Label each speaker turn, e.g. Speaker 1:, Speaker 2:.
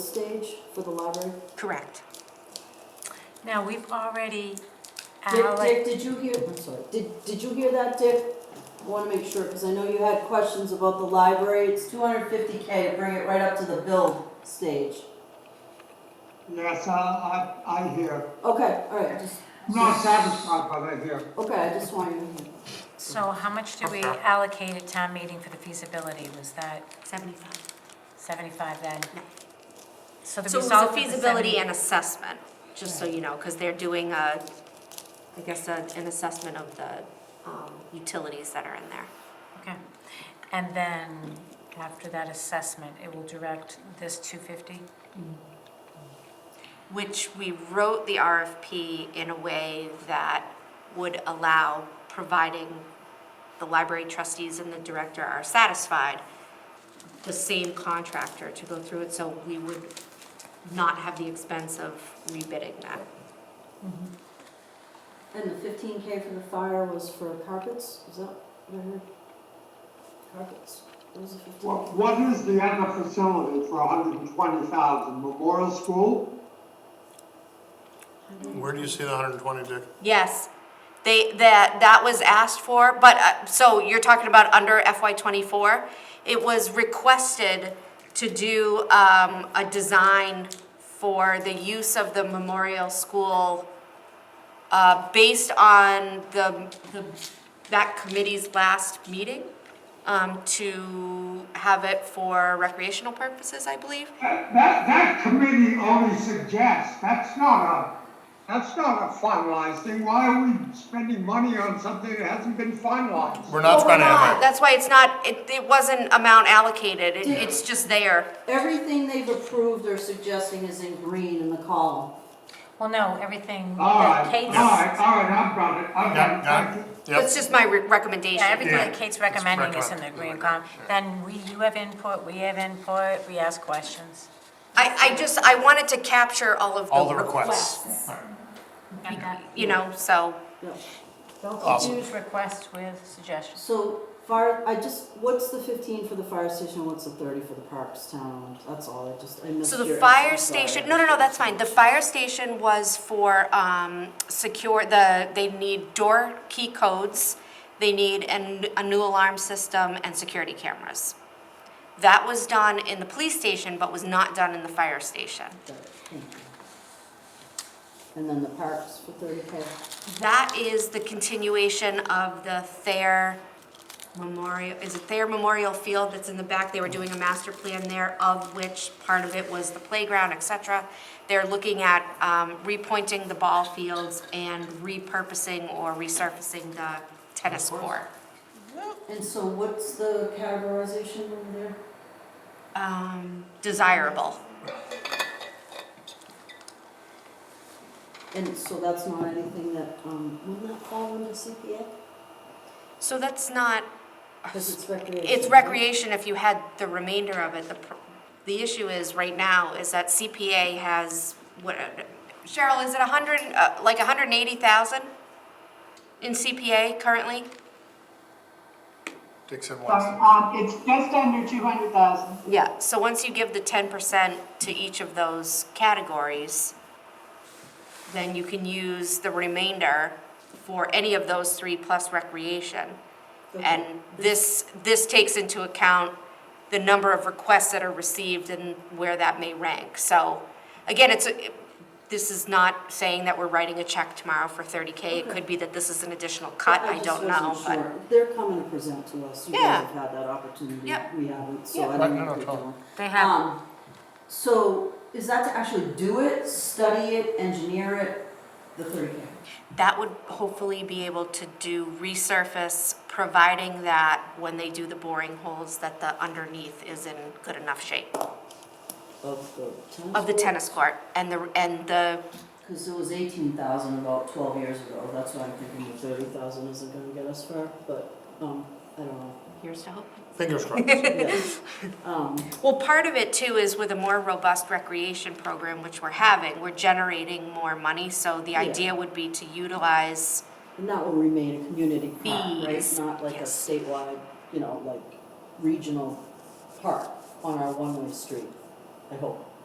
Speaker 1: stage for the library?
Speaker 2: Correct. Now, we've already,
Speaker 1: Dick, Dick,
Speaker 2: Alec,
Speaker 1: did you hear, I'm sorry, did, did you hear that, Dick? I Wanna make sure, cause I know you had questions about the library, it's two hundred fifty K to bring it right up to the build stage.
Speaker 3: Yes, I, I, I hear.
Speaker 1: Okay, alright, just,
Speaker 3: I'm not satisfied, but I hear.
Speaker 1: okay, I just wanted to hear.
Speaker 2: so how much did we allocate at town meeting for the feasibility? Was that
Speaker 4: 75.
Speaker 2: 75 then?
Speaker 4: No.
Speaker 2: So the
Speaker 4: So it was
Speaker 2: result
Speaker 4: a
Speaker 2: of the
Speaker 4: feasibility
Speaker 2: 70
Speaker 4: and assessment, just so you know, because they're doing a, I guess, a- an assessment of the um, utilities that are in there.
Speaker 2: Okay. And then, after that assessment, it will direct this 250?
Speaker 4: Which we wrote the RFP in a way that would allow, providing the library trustees and the director are satisfied, the same contractor to go through it, so we would not have the expense of rebidding that.
Speaker 1: And the fifteen K for the fire was for carpets, is that what I heard? Carpets, what was the fifteen?
Speaker 3: What, what is the other facility for hundred and twenty thousand, Memorial School?
Speaker 5: Where do you see the hundred and twenty, Dick?
Speaker 4: Yes, they, that, that was asked for, but, uh, so you're talking about under FY twenty-four? It was requested to do, um, a design for the use of the memorial school, uh, based on the, the, that committee's last meeting, um, to have it for recreational purposes, I believe.
Speaker 3: That, that, that committee only suggests, that's not a, that's not a finalized thing. Why are we spending money on something that hasn't been finalized?
Speaker 5: We're
Speaker 4: Well,
Speaker 5: not
Speaker 4: we're
Speaker 5: trying to
Speaker 4: not.
Speaker 5: have
Speaker 4: That's why it's not, it, it wasn't amount allocated, it, it's just there.
Speaker 1: Everything they've approved or suggesting is in green in the column.
Speaker 2: Well, no, everything
Speaker 3: All
Speaker 2: that
Speaker 3: right,
Speaker 2: Kate's,
Speaker 3: all
Speaker 2: yeah,
Speaker 3: right, all right, I've got it, I've
Speaker 5: Yeah,
Speaker 3: got it.
Speaker 5: yeah, yep.
Speaker 4: That's just my re- recommendation.
Speaker 2: everything that
Speaker 5: Yeah.
Speaker 2: Kate's recommending is in the
Speaker 5: recommend-
Speaker 2: green column. Then we, you have input, we have input, we ask questions.
Speaker 4: I, I just, I wanted to capture all of
Speaker 5: All
Speaker 4: the
Speaker 5: the requests.
Speaker 4: requests.
Speaker 2: And that-
Speaker 4: You know, so,
Speaker 1: Yeah.
Speaker 2: Don't
Speaker 5: Awesome.
Speaker 2: confuse requests with suggestions.
Speaker 1: So fire, I just, what's the fifteen for the fire station, what's the thirty for the parks town? That's all, I just, I missed
Speaker 4: so
Speaker 1: your.
Speaker 4: the fire
Speaker 1: I'm sorry.
Speaker 4: station, no, no, no, that's fine. The fire station was for, um, secure, the, they need door key codes, they need an, a new alarm system and security cameras. That was done in the police station, but was not done in the fire station.
Speaker 1: Got it, thank you. And then the parks for thirty K,
Speaker 4: That is the continuation of the Thayer Memorial, is it Thayer Memorial Field that's in the back? They were doing a master plan there, of which part of it was the playground, et cetera. They're looking at um, repointing the ball fields and repurposing or resurfacing the tennis court.
Speaker 1: and so what's the categorization over there?
Speaker 4: Um, Desirable.
Speaker 1: And so that's not anything that, um, wouldn't that fall under CPA?
Speaker 4: Uh, So that's not,
Speaker 1: Cause it's recreation.
Speaker 4: it's
Speaker 1: right?
Speaker 4: recreation if you had the remainder of it. The, pr- the issue is, right now, is that CPA has, what, Cheryl, is it a hundred, uh, like a hundred and eighty thousand in CPA currently?
Speaker 5: Dixon wants
Speaker 6: Um,
Speaker 5: to.
Speaker 6: um, it's just under two hundred thousand.
Speaker 4: Yeah. So once you give the ten percent to each of those categories, then you can use the remainder for any of those three plus recreation. And
Speaker 1: Okay.
Speaker 4: this, this takes into account the number of requests that are received and where that may rank. So, again, it's, a- this is not saying that we're writing a check tomorrow for thirty K. It could be that this is an additional cut, I
Speaker 1: just
Speaker 4: don't know,
Speaker 1: wasn't
Speaker 4: but.
Speaker 1: sure. They're coming to present to us, you
Speaker 4: Yeah.
Speaker 1: guys have had that opportunity,
Speaker 4: Yep.
Speaker 1: we haven't, so
Speaker 4: Yep.
Speaker 1: I
Speaker 5: Right,
Speaker 1: don't
Speaker 5: no,
Speaker 1: know
Speaker 5: no,
Speaker 1: if they're
Speaker 5: totally.
Speaker 1: doing.
Speaker 2: They have
Speaker 1: Um, so is that to actually do it, study it, engineer it, the thirty K?
Speaker 4: That would hopefully be able to do resurface, providing that when they do the boring holes, that the underneath is in good enough shape
Speaker 1: Of the tennis?
Speaker 4: of the
Speaker 1: court?
Speaker 4: tennis court and the, and the,
Speaker 1: Cause it was eighteen thousand about twelve years ago, that's why I'm thinking the thirty thousand isn't gonna get us far, but, um, I don't know.
Speaker 4: here's to hope.
Speaker 5: Fingers crossed.
Speaker 1: Yes. Um,
Speaker 4: Well, part of it too is with a more robust recreation program, which we're having, we're generating more money, so the
Speaker 1: Yeah.
Speaker 4: idea would be to utilize,
Speaker 1: and that will remain a community park, right,
Speaker 4: Fees,
Speaker 1: not like a
Speaker 4: yes.
Speaker 1: statewide, you know, like regional park on our one-way street, I hope.